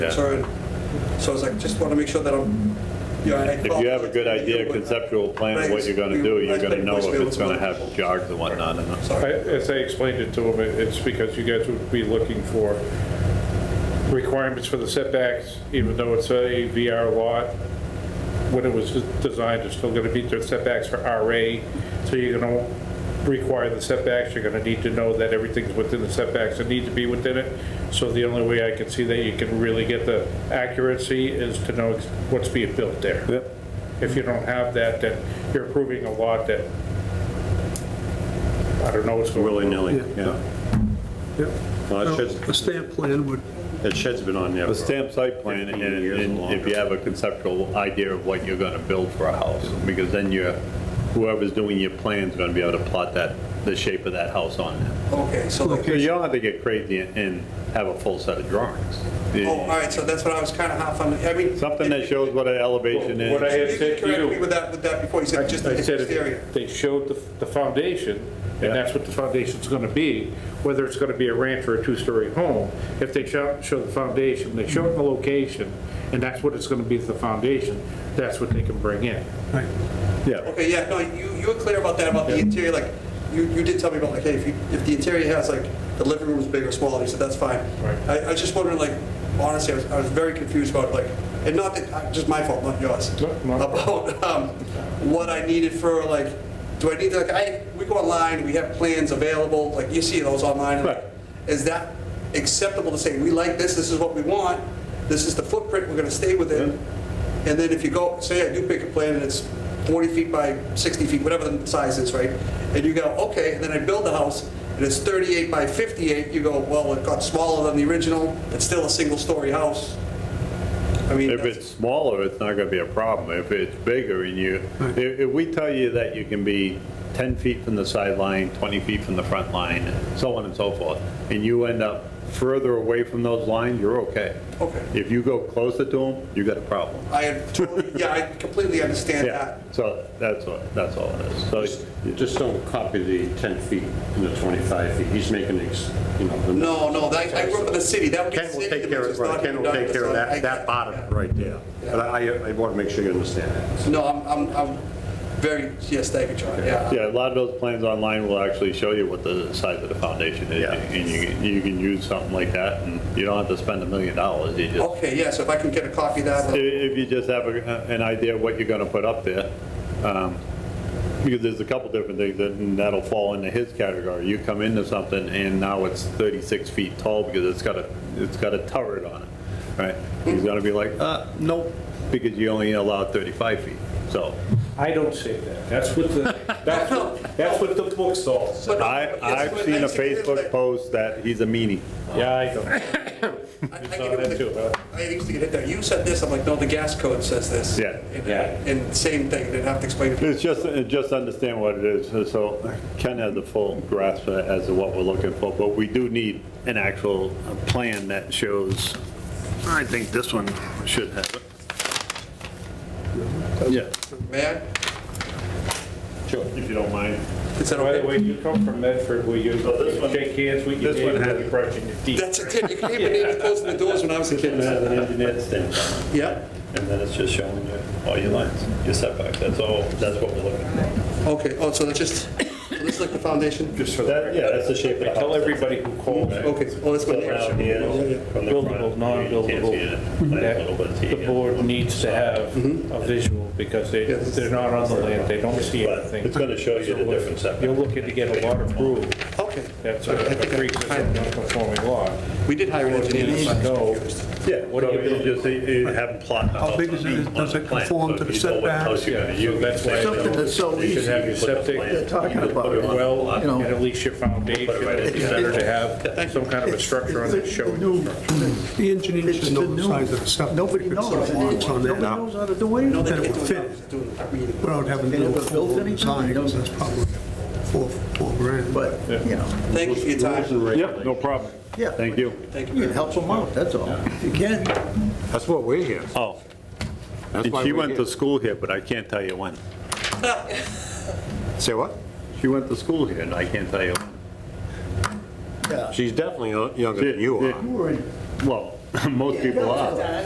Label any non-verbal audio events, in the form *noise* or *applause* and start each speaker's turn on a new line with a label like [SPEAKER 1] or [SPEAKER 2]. [SPEAKER 1] concern. So I was like, just want to make sure that I'm, you know, I.
[SPEAKER 2] If you have a good idea, conceptual plan of what you're gonna do, you're gonna know if it's gonna have jogs and whatnot in it.
[SPEAKER 1] Sorry.
[SPEAKER 3] I- As I explained it to him, it- it's because you guys would be looking for requirements for the setbacks, even though it's a VR lot, when it was designed, it's still going to meet their setbacks for RA, so you're going to require the setbacks, you're going to need to know that everything's within the setbacks that need to be within it. So the only way I can see that you can really get the accuracy is to know what's being built there.
[SPEAKER 2] Yep.
[SPEAKER 3] If you don't have that, then you're approving a lot that, I don't know what's going on.
[SPEAKER 4] willy-nilly, yeah.
[SPEAKER 5] Yep.
[SPEAKER 4] Well, it
[SPEAKER 5] No,
[SPEAKER 4] sheds-
[SPEAKER 5] A stamp plan would,
[SPEAKER 4] That shed's been on there.
[SPEAKER 2] The
[SPEAKER 4] for-
[SPEAKER 2] stamp site plan, and and if you have a conceptual idea of what you're gonna build for a house, because then you're, whoever's doing your plan's gonna be able to plot that, the shape of that house on there.
[SPEAKER 1] Okay, so,
[SPEAKER 2] So
[SPEAKER 1] like-
[SPEAKER 2] you don't have to get crazy and have a full set of drawings.
[SPEAKER 1] oh, all right, so that's what I was kind of half on, I mean.
[SPEAKER 2] Something that shows what an elevation is.
[SPEAKER 3] What I had
[SPEAKER 1] You
[SPEAKER 3] said to
[SPEAKER 1] corrected me
[SPEAKER 3] you,
[SPEAKER 1] with that, with that before, you
[SPEAKER 3] I
[SPEAKER 1] said just the
[SPEAKER 3] I said,
[SPEAKER 1] exterior.
[SPEAKER 3] if they showed the, the foundation,
[SPEAKER 2] Yeah.
[SPEAKER 3] and that's what the foundation's gonna be, whether it's gonna be a ranch or a two-story home, if they show, show the foundation, they show it in the location, and that's what it's gonna be, the foundation, that's what they can bring in.
[SPEAKER 5] right,
[SPEAKER 2] Yeah,
[SPEAKER 1] Okay, yeah, no, you, you were clear about that, about the interior, like, you, you did tell me about, like, hey, if you, if the interior has, like, the living room's big or small, you said, that's fine.
[SPEAKER 3] Right.
[SPEAKER 1] I, I was just wondering, like, honestly, I was, I was very confused about, like, and not that, uh, just my fault, not yours.
[SPEAKER 3] No, no.
[SPEAKER 1] About, um, what I needed for, like, do I need, like, I, we go online, we have plans available, like, you see those online. and, like,
[SPEAKER 2] Right.
[SPEAKER 1] Is that acceptable to say, we like this, this is what we want, this is the footprint, we're gonna stay within? And then if you go, say I do pick a plan and it's 40 feet by 60 feet, whatever the size is, right? And you go, okay, and then I build a house and it's 38 by 58, you go, well, it got smaller than the original, it's still a single-story house. I mean,
[SPEAKER 2] if
[SPEAKER 1] that's-
[SPEAKER 2] it's smaller, it's not gonna be a problem. If it's bigger and you, if, if we tell you that you can be 10 feet from the sideline, 20 feet from the front line, so on and so forth, and you end up further away from those lines, you're okay.
[SPEAKER 1] Okay.
[SPEAKER 2] If you go closer to them, you got a problem.
[SPEAKER 1] I had totally, yeah, I completely understand
[SPEAKER 2] Yeah,
[SPEAKER 1] that.
[SPEAKER 2] so that's what, that's all it is. So
[SPEAKER 4] You Just don't copy the 10 feet and the 25 feet. He's making, ex- you know. the-
[SPEAKER 1] No, no, that- I grew up in the city, that would be
[SPEAKER 4] Ken will
[SPEAKER 1] city
[SPEAKER 4] take care
[SPEAKER 1] limits,
[SPEAKER 4] of,
[SPEAKER 1] it's not
[SPEAKER 4] right, Ken will
[SPEAKER 1] even
[SPEAKER 4] take
[SPEAKER 1] done,
[SPEAKER 4] care of
[SPEAKER 1] so I-
[SPEAKER 4] that, that bottom right there. But I, I want to make sure you understand that.
[SPEAKER 1] No, I'm, I'm, I'm very, yes, thank you, John, yeah.
[SPEAKER 2] Yeah, a lot of those plans online will actually show you what the size of the foundation is,
[SPEAKER 4] Yeah.
[SPEAKER 2] and you, can- you can use something like that, and you don't have to spend a million dollars, you just,
[SPEAKER 1] Okay, yeah, so if I can get a copy of that.
[SPEAKER 2] i- if you just have a- an idea of what you're gonna put up there, um, because there's a couple different things, that- and that'll fall into his category. You come into something, and now it's 36 feet tall because it's got a, it's got a turret on it, right? He's gonna be like, uh, nope, because you only allow 35 feet, so.
[SPEAKER 3] I don't say that, that's what the, that's what, that's what the book says.
[SPEAKER 1] But-
[SPEAKER 2] I,
[SPEAKER 1] yes,
[SPEAKER 2] I've
[SPEAKER 1] but
[SPEAKER 2] seen a
[SPEAKER 1] that's-
[SPEAKER 2] Facebook post that he's a meanie.
[SPEAKER 3] Yeah, I don't,
[SPEAKER 1] I- I
[SPEAKER 3] You
[SPEAKER 1] get
[SPEAKER 3] saw
[SPEAKER 1] it with
[SPEAKER 3] that
[SPEAKER 1] the-
[SPEAKER 3] too, huh?
[SPEAKER 1] I used to get hit there. You said this, I'm like, no, the gas code says this.
[SPEAKER 2] Yeah.
[SPEAKER 1] And-
[SPEAKER 4] Yeah.
[SPEAKER 1] And same thing, they'd have to explain. it.
[SPEAKER 2] It's just, it just understand what it is, so Ken has a full grasp as to what we're looking for, but we do need an actual plan that shows, I think this one should have it. Yeah,
[SPEAKER 1] May I?
[SPEAKER 2] if you don't mind.
[SPEAKER 1] Is that
[SPEAKER 3] by the
[SPEAKER 1] okay?
[SPEAKER 3] way, you come from Medford, will you
[SPEAKER 2] So this one-
[SPEAKER 3] shake hands with your
[SPEAKER 2] this one
[SPEAKER 3] neighbor,
[SPEAKER 2] has-
[SPEAKER 3] when you brush in your teeth?
[SPEAKER 1] That's a tip. You can't even name closing the doors when I was a
[SPEAKER 2] It
[SPEAKER 1] kid.
[SPEAKER 2] has an engineered stamp on
[SPEAKER 1] Yeah?
[SPEAKER 2] it, and then it's just showing you all your lines, your setbacks, that's all, that's what we're looking for.
[SPEAKER 1] Okay, oh, so that's just, so this is like the foundation?
[SPEAKER 3] Just for
[SPEAKER 2] That, yeah, that's the shape of the house.
[SPEAKER 3] Tell everybody who calls.
[SPEAKER 1] Okay, oh, that's my
[SPEAKER 2] So now
[SPEAKER 1] name.
[SPEAKER 2] here, from the front,
[SPEAKER 3] Buildable, non-buildable,
[SPEAKER 2] you can't see it, like a little bit
[SPEAKER 3] that
[SPEAKER 2] here.
[SPEAKER 3] the board needs to have
[SPEAKER 2] Mm-hmm.
[SPEAKER 3] a visual because they,
[SPEAKER 1] Yes.
[SPEAKER 3] they're not on the land, they don't see
[SPEAKER 2] But
[SPEAKER 3] anything.
[SPEAKER 2] it's gonna show you the different setbacks.
[SPEAKER 3] You're looking to get a lot approved,
[SPEAKER 1] Okay.
[SPEAKER 3] that's a a pre-existing non-conforming lot.
[SPEAKER 1] We did hire an engineer.
[SPEAKER 3] Needs to know,
[SPEAKER 2] Yeah, what do you just, you- you have them plot.
[SPEAKER 5] How big is it? Does it conform to the setbacks?
[SPEAKER 3] Yeah, so that's why-
[SPEAKER 6] Something that's so
[SPEAKER 2] You should
[SPEAKER 6] easy
[SPEAKER 2] have your septic.
[SPEAKER 6] they're talking about.
[SPEAKER 3] well,
[SPEAKER 6] You know.
[SPEAKER 3] and at least your foundation, it's better to have some kind of a structure on it showing.
[SPEAKER 5] the engineer
[SPEAKER 6] It's
[SPEAKER 5] should
[SPEAKER 6] the
[SPEAKER 5] know the
[SPEAKER 6] new-
[SPEAKER 5] size of the septic.
[SPEAKER 6] Nobody
[SPEAKER 5] If it's
[SPEAKER 6] knows.
[SPEAKER 5] a lot on there.
[SPEAKER 6] Nobody knows how to do it.
[SPEAKER 1] No, they
[SPEAKER 5] That it
[SPEAKER 1] can't
[SPEAKER 5] would
[SPEAKER 1] do it.
[SPEAKER 5] fit
[SPEAKER 1] Doing a reading.
[SPEAKER 5] without having to
[SPEAKER 6] They
[SPEAKER 5] do
[SPEAKER 6] never built
[SPEAKER 5] full
[SPEAKER 6] anything,
[SPEAKER 5] design,
[SPEAKER 6] they don't-
[SPEAKER 5] that's probably four, four grand.
[SPEAKER 6] But, you know,
[SPEAKER 1] Thank you for your time.
[SPEAKER 2] Yep, no problem.
[SPEAKER 6] Yeah.
[SPEAKER 2] Thank you.
[SPEAKER 1] Thank you.
[SPEAKER 6] it helps them out, that's all. If you can,
[SPEAKER 4] That's what we're here.
[SPEAKER 2] Oh,
[SPEAKER 4] That's
[SPEAKER 2] and
[SPEAKER 4] why
[SPEAKER 2] she
[SPEAKER 4] we're
[SPEAKER 2] went
[SPEAKER 4] here.
[SPEAKER 2] to school here, but I can't tell you when.
[SPEAKER 4] Say what?
[SPEAKER 2] She went to school here, and I can't tell you when.
[SPEAKER 6] yeah.
[SPEAKER 4] She's definitely uh, younger than you
[SPEAKER 2] Yeah,
[SPEAKER 4] are.
[SPEAKER 6] You were in
[SPEAKER 2] Well, *laughs* most people are.